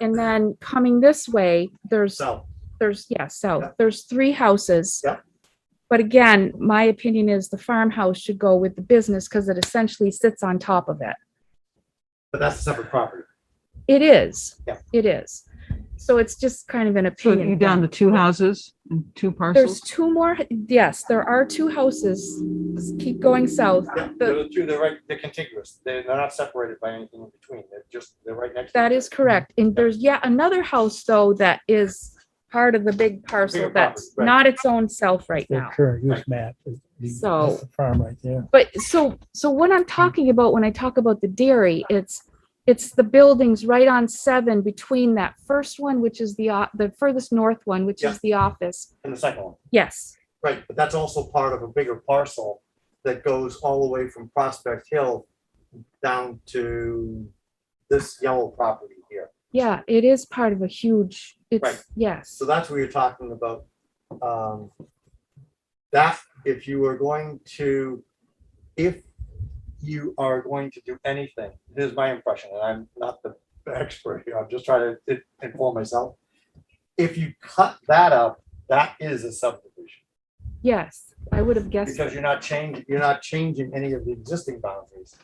And then coming this way, there's, So, there's, yeah, south, Yeah. there's three houses. Yeah. But again, my opinion is the farmhouse should go with the business because it essentially sits on top of it. but that's a separate property. It is. Yeah. It is. So it's just kind of an So opinion. you're down thing. to two houses and two There's parcels? two more, yes, there are two houses. Just Keep going south. Yeah, The- Those two, they're right, they're contiguous. They're, they're not separated by anything in between. They're just, they're right next. to That each is correct. And there's yet another house though that is part of the big parcel Bigger property, that's right. not its own self right their now. current use map. is- that's So- the Farm right there. But so, so what I'm talking about when I talk about the dairy, it's, it's the buildings right on seven between that first one, which is the, o- the furthest north one, which Yeah. is the office. other. And the second one, Yes, right, but that's also part of a bigger parcel that goes all the way from Prospect Hill down to this yellow property here. yeah, it is part of a huge, Right. it's, yes, So that's what you're talking about. Um, That, if you are going to, if you are going to do anything, this is my impression, and I'm not the expert here, I'm just trying to i- inform myself. If you cut that up, that is a subdivision, yes, I would have guessed. because you're not changing, you're not changing any of the existing boundaries.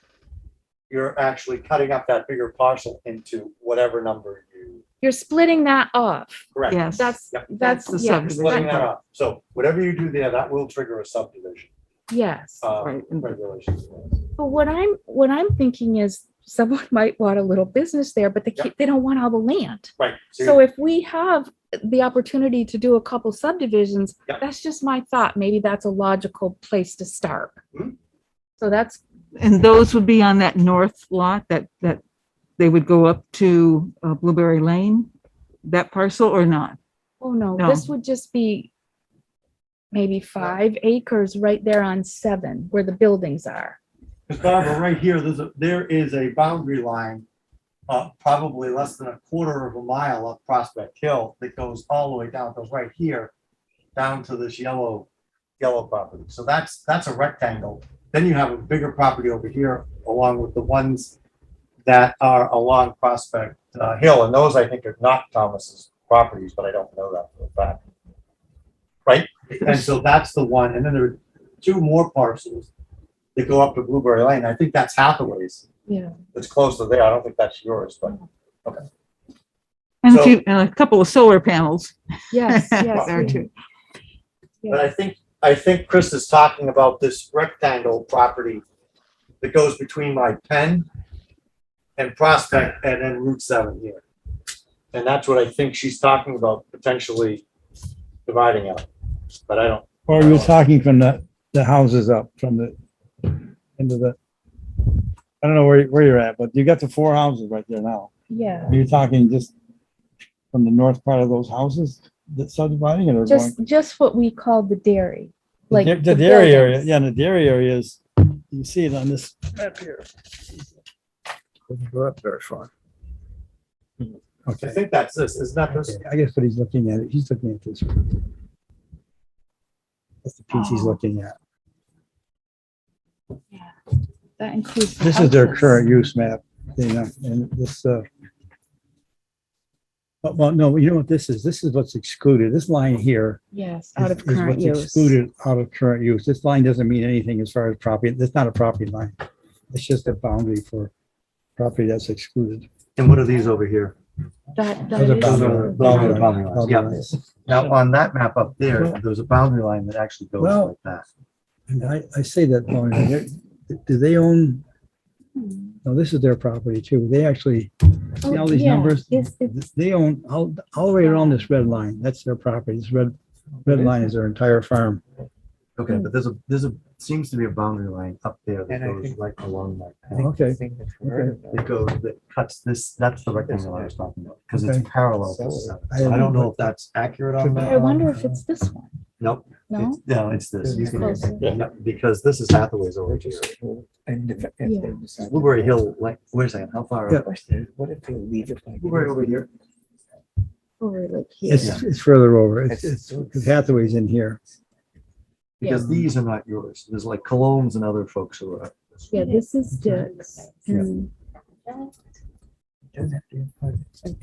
You're actually cutting up that bigger parcel into whatever number you, You're splitting that off. correct? Yes. That's, Yep. that's, That's the yes, subdivision. splitting that- that up. So whatever you do there, that will trigger a subdivision, yes. uh, Right. regulations. But what I'm, what I'm thinking is someone might want a little business there, but they Yeah. can't, they don't want all the land. Right, So so if we have the opportunity to do a couple subdivisions, Yep. that's just my thought. Maybe that's a logical place to start. Mhm. So that's, And those would be on that north lot that, that they would go up to uh, Blueberry Lane? That parcel or not? oh no, this would just be maybe five acres right there on seven where the buildings are. because Barbara, right here, there's a, there is a boundary line, uh, probably less than a quarter of a mile up Prospect Hill that goes all the way down, goes right here, down to this yellow, yellow property. So that's, that's a rectangle. Then you have a bigger property over here along with the ones that are along Prospect uh, Hill, and those I think are not Thomas's properties, but I don't know that for a fact. Right? And so that's the one, and then there are two more parcels that go up to Blueberry Lane. I think that's Hathaway's. Yeah. It's close to there. I don't think that's yours, but And a So- few, and a couple of solar panels Yes, yes. there we- too. But I yes. think, I think Chris is talking about this rectangle property that goes between my pen and Prospect and then Route seven here. And that's what I think she's talking about potentially dividing out, but I don't, Or you're talking from the, the houses up from the end of the, I don't know where, where you're at, but you got the four houses right there now. Yeah, Are you talking just from the north part of those houses that subdividing it or going? just, just what we call the dairy, like. The the dairy area, buildings. yeah, the dairy area is, you see it on this map here. Doesn't go up very far. I Okay. think that's this, isn't that this? Okay, I guess what he's looking at, he's looking at this. one. That's the piece Oh. he's looking at. That includes. the This is their houses. current use map, you know, and this, uh, but, well, no, you know what this is? This is what's excluded. This line here Yes, is out of is current what's use. Excluded out of current use. This line doesn't mean anything as far as property. It's not a property line. It's just a boundary for property that's excluded. And what are these over here? That, Those are boundary- that bound- boundary boundary lines, lines, yeah. boundary lines. Now, on that map up there, there's a boundary line that actually goes Well- like that. And I, I say that, boundary, they're- do they own, is. no, this is their property too. They actually See all these Yeah, numbers? It's, it's They own all, all the way around this red line. That's their property. This red, red line is their entire farm. Okay, but there's a, there's a, seems to be a boundary line up there that And I goes think- right along like that. Okay. It goes, that cuts this, that's the rectangle I was talking about, because Okay. it's parallel. to the So- seven. I So I don't haven't know looked if that's accurate on Could that. be. I wonder if it's this one. Nope. No, it's- No, it's this. You it's can- closer. yeah, Because this is Hathaway's over here. Blueberry Hill, like, wait a second, how far? Yeah. What if they leave it like? Blueberry over here. Over like here. It's, it's further over. It's, It's- it's, 'cause Hathaway's in here. Because Yeah. these are not yours. There's like Colognes and other folks who are. Yeah, this is Dick's. Yeah. and Doesn't have to be a part of it.